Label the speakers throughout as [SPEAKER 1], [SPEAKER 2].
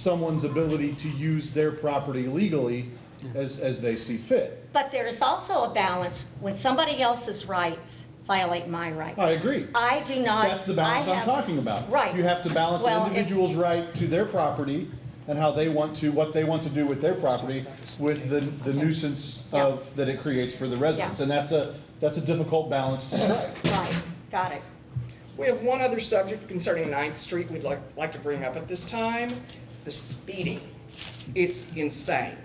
[SPEAKER 1] someone's ability to use their property legally as, as they see fit.
[SPEAKER 2] But there is also a balance when somebody else's rights violate my rights.
[SPEAKER 1] I agree.
[SPEAKER 2] I do not.
[SPEAKER 1] That's the balance
[SPEAKER 2] I
[SPEAKER 1] I'm
[SPEAKER 2] have-
[SPEAKER 1] talking about.
[SPEAKER 2] Right.
[SPEAKER 1] You have to balance
[SPEAKER 2] Well,
[SPEAKER 1] an
[SPEAKER 2] if-
[SPEAKER 1] individual's right to their property and how they want to, what they want to do with their property with the, the nuisance of, that it creates for the residents.
[SPEAKER 2] Yeah.
[SPEAKER 1] And that's a, that's a difficult balance to strike.
[SPEAKER 2] Right, got it.
[SPEAKER 3] We have one other subject concerning Ninth Street we'd like, like to bring up at this time, the speeding. It's insane,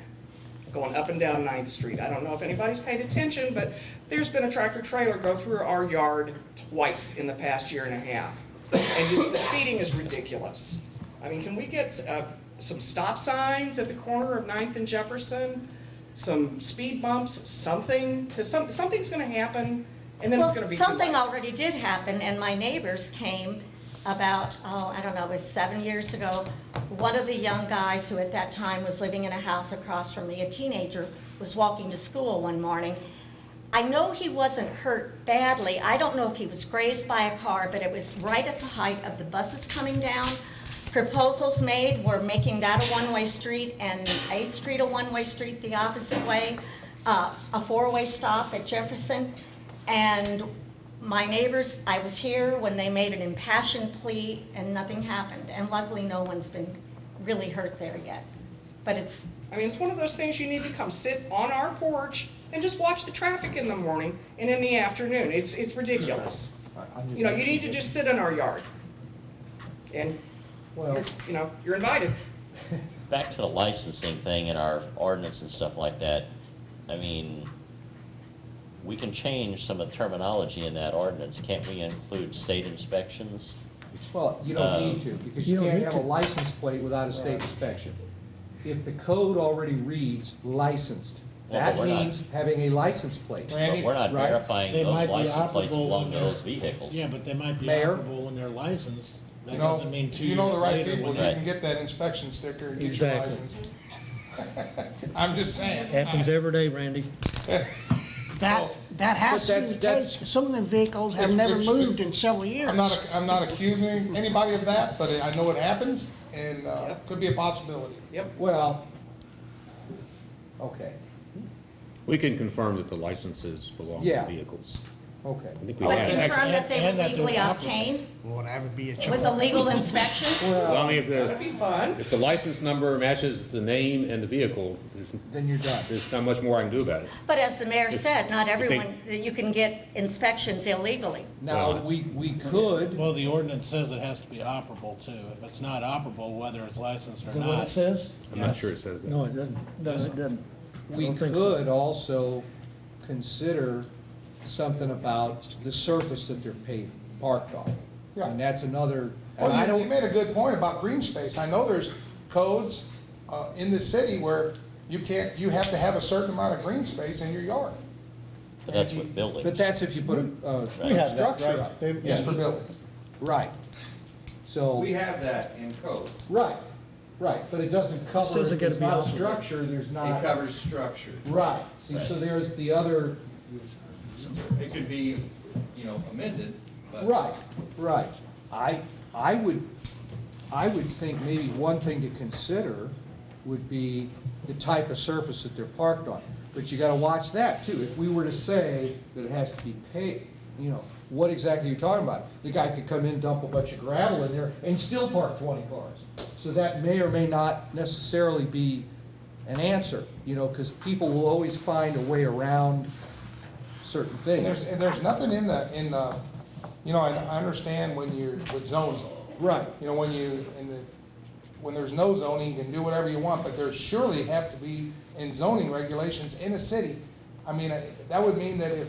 [SPEAKER 3] going up and down Ninth Street. I don't know if anybody's paid attention, but there's been a tractor trailer go through our yard twice in the past year and a half. And just, the speeding is ridiculous. I mean, can we get, uh, some stop signs at the corner of Ninth and Jefferson? Some speed bumps, something, because some, something's gonna happen, and then it's gonna be too
[SPEAKER 2] Well, something
[SPEAKER 3] late.
[SPEAKER 2] already did happen, and my neighbors came about, oh, I don't know, it was seven years ago. One of the young guys who at that time was living in a house across from me, a teenager, was walking to school one morning. I know he wasn't hurt badly. I don't know if he was grazed by a car, but it was right at the height of the buses coming down. Proposals made were making that a one-way street and Eighth Street a one-way street the opposite way, uh, a four-way stop at Jefferson. And my neighbors, I was here when they made an impassioned plea and nothing happened. And luckily, no one's been really hurt there yet. But it's,
[SPEAKER 3] I mean, it's one of those things you need to come sit on our porch and just watch the traffic in the morning and in the afternoon. It's, it's ridiculous. You know, you need to just sit in our yard. And,
[SPEAKER 4] Well-
[SPEAKER 3] you know, you're invited.
[SPEAKER 5] Back to the licensing thing and our ordinance and stuff like that, I mean, we can change some of the terminology in that ordinance, can't we include state inspections?
[SPEAKER 4] Well, you
[SPEAKER 5] Uh,
[SPEAKER 4] don't need to, because
[SPEAKER 6] You
[SPEAKER 4] you
[SPEAKER 6] don't
[SPEAKER 4] can't
[SPEAKER 6] need
[SPEAKER 4] have a
[SPEAKER 6] to.
[SPEAKER 4] license plate without a state inspection. If the code already reads licensed,
[SPEAKER 5] Well, but
[SPEAKER 4] that
[SPEAKER 5] we're not-
[SPEAKER 4] means having a license plate.
[SPEAKER 5] But we're not
[SPEAKER 4] right.
[SPEAKER 5] verifying
[SPEAKER 6] They might
[SPEAKER 5] those
[SPEAKER 6] be
[SPEAKER 5] license plates
[SPEAKER 6] operable
[SPEAKER 5] belong
[SPEAKER 6] when
[SPEAKER 5] to
[SPEAKER 6] they're-
[SPEAKER 5] those vehicles.
[SPEAKER 6] Yeah, but they might be
[SPEAKER 4] Mayor?
[SPEAKER 6] operable when they're licensed. That
[SPEAKER 7] You know,
[SPEAKER 6] doesn't mean
[SPEAKER 7] if
[SPEAKER 6] two
[SPEAKER 7] you
[SPEAKER 6] years
[SPEAKER 7] know the right
[SPEAKER 6] later
[SPEAKER 7] people,
[SPEAKER 6] when
[SPEAKER 7] you
[SPEAKER 5] Right.
[SPEAKER 7] can get that inspection sticker and get your
[SPEAKER 6] Exactly.
[SPEAKER 7] license. I'm just saying.
[SPEAKER 6] Happens every day, Randy.
[SPEAKER 7] So-
[SPEAKER 8] That, that has
[SPEAKER 4] But
[SPEAKER 8] to be the
[SPEAKER 4] that's-
[SPEAKER 8] case, because some of them vehicles have
[SPEAKER 7] If-
[SPEAKER 8] never
[SPEAKER 7] if-
[SPEAKER 8] moved in several years.
[SPEAKER 7] I'm not, I'm not accusing anybody of that, but I know it happens and uh,
[SPEAKER 3] Yep.
[SPEAKER 7] could be a possibility.
[SPEAKER 3] Yep.
[SPEAKER 4] Well, okay,
[SPEAKER 9] We can confirm that the licenses belong to
[SPEAKER 4] Yeah.
[SPEAKER 9] the vehicles.
[SPEAKER 4] okay.
[SPEAKER 9] I think we
[SPEAKER 2] but
[SPEAKER 9] have.
[SPEAKER 2] confirm that they were
[SPEAKER 6] And that they're
[SPEAKER 2] legally
[SPEAKER 6] operable.
[SPEAKER 2] obtained
[SPEAKER 6] Well, that would be a
[SPEAKER 2] with a legal inspection.
[SPEAKER 9] Well, I mean, if
[SPEAKER 3] That'd
[SPEAKER 9] the,
[SPEAKER 3] be fun.
[SPEAKER 9] if the license number matches the name and the vehicle, there's,
[SPEAKER 4] Then you're done.
[SPEAKER 9] there's not much more I can do about it.
[SPEAKER 2] But as the mayor said, not
[SPEAKER 9] If they-
[SPEAKER 2] everyone, you can get inspections illegally.
[SPEAKER 4] Now, we, we could.
[SPEAKER 6] Well, the ordinance says it has to be operable too. If it's not operable, whether it's licensed or
[SPEAKER 10] Is that what it
[SPEAKER 6] not.
[SPEAKER 10] says?
[SPEAKER 9] I'm not sure it says that.
[SPEAKER 10] No, it doesn't. No, it doesn't. I
[SPEAKER 4] We
[SPEAKER 10] don't think so.
[SPEAKER 4] could also consider something about the surface that they're paved, parked on.
[SPEAKER 7] Yeah.
[SPEAKER 4] And that's another, and I
[SPEAKER 7] Well, you- you
[SPEAKER 4] don't,
[SPEAKER 7] made a good point about green space. I know there's codes uh, in the city where you can't, you have to have a certain amount of green space in your yard.
[SPEAKER 5] But that's with buildings.
[SPEAKER 4] but that's if you put a, uh
[SPEAKER 1] We have that,
[SPEAKER 4] structure
[SPEAKER 1] right?
[SPEAKER 4] up.
[SPEAKER 1] They-
[SPEAKER 7] Yes, for buildings.
[SPEAKER 4] Right. So,
[SPEAKER 11] We have that in code.
[SPEAKER 4] right, right, but it doesn't cover.
[SPEAKER 10] Says it gotta
[SPEAKER 4] there's
[SPEAKER 10] be
[SPEAKER 4] not a
[SPEAKER 10] operable.
[SPEAKER 4] Structure, there's
[SPEAKER 11] It
[SPEAKER 4] not,
[SPEAKER 11] covers structure.
[SPEAKER 4] right, see, so there's the other,
[SPEAKER 11] It could be, you know, amended, but.
[SPEAKER 4] right, right. I, I would, I would think maybe one thing to consider would be the type of surface that they're parked on. But you gotta watch that too. If we were to say that it has to be paved, you know, what exactly are you talking about? The guy could come in, dump a bunch of gravel in there and still park twenty cars. So that may or may not necessarily be an answer, you know, because people will always find a way around certain
[SPEAKER 7] And there's,
[SPEAKER 4] things.
[SPEAKER 7] and there's nothing in the, in the, you know, and I understand when you're with zoning,
[SPEAKER 4] Right.
[SPEAKER 7] You know, when you, in the, when there's no zoning, you can do whatever you want, but there surely have to be in zoning regulations in a city. I mean, I- that would mean that if,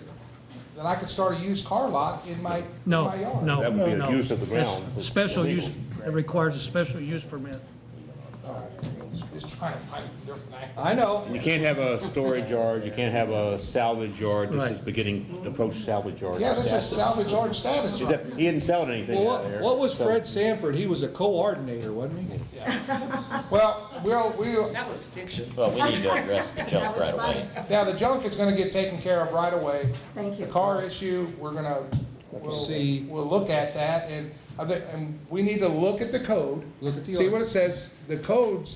[SPEAKER 7] that I could start a used car lot in my, in
[SPEAKER 10] No,
[SPEAKER 7] my yard.
[SPEAKER 10] no,
[SPEAKER 9] That would be
[SPEAKER 10] no.
[SPEAKER 9] abuse of the
[SPEAKER 10] That's
[SPEAKER 9] ground. It's
[SPEAKER 10] Special use,
[SPEAKER 9] illegal.
[SPEAKER 10] it requires a special use permit.
[SPEAKER 7] Just trying to find a different angle.
[SPEAKER 4] I know.
[SPEAKER 9] You can't have a storage yard, you can't have a salvage yard. This is
[SPEAKER 10] Right.
[SPEAKER 9] beginning to approach salvage yard.
[SPEAKER 7] Yeah, this is
[SPEAKER 9] status.
[SPEAKER 7] salvage yard status.
[SPEAKER 9] Is that- He didn't sell anything
[SPEAKER 4] Well,
[SPEAKER 9] out
[SPEAKER 4] what,
[SPEAKER 9] there.
[SPEAKER 4] what was
[SPEAKER 9] so-
[SPEAKER 4] Fred Sanford? He was a coordinator, wasn't he?
[SPEAKER 7] Well, we'll, we'll,
[SPEAKER 3] That was fiction.
[SPEAKER 5] Well, we need to address the junk
[SPEAKER 2] That was
[SPEAKER 5] right
[SPEAKER 2] funny.
[SPEAKER 5] away.
[SPEAKER 7] now the junk is gonna get taken care of right away.
[SPEAKER 2] Thank you.
[SPEAKER 7] The car issue, we're gonna, we'll,
[SPEAKER 4] See.
[SPEAKER 7] we'll look at that, and I think- and we need to look at the code.
[SPEAKER 4] Look at the
[SPEAKER 7] See what it says. The codes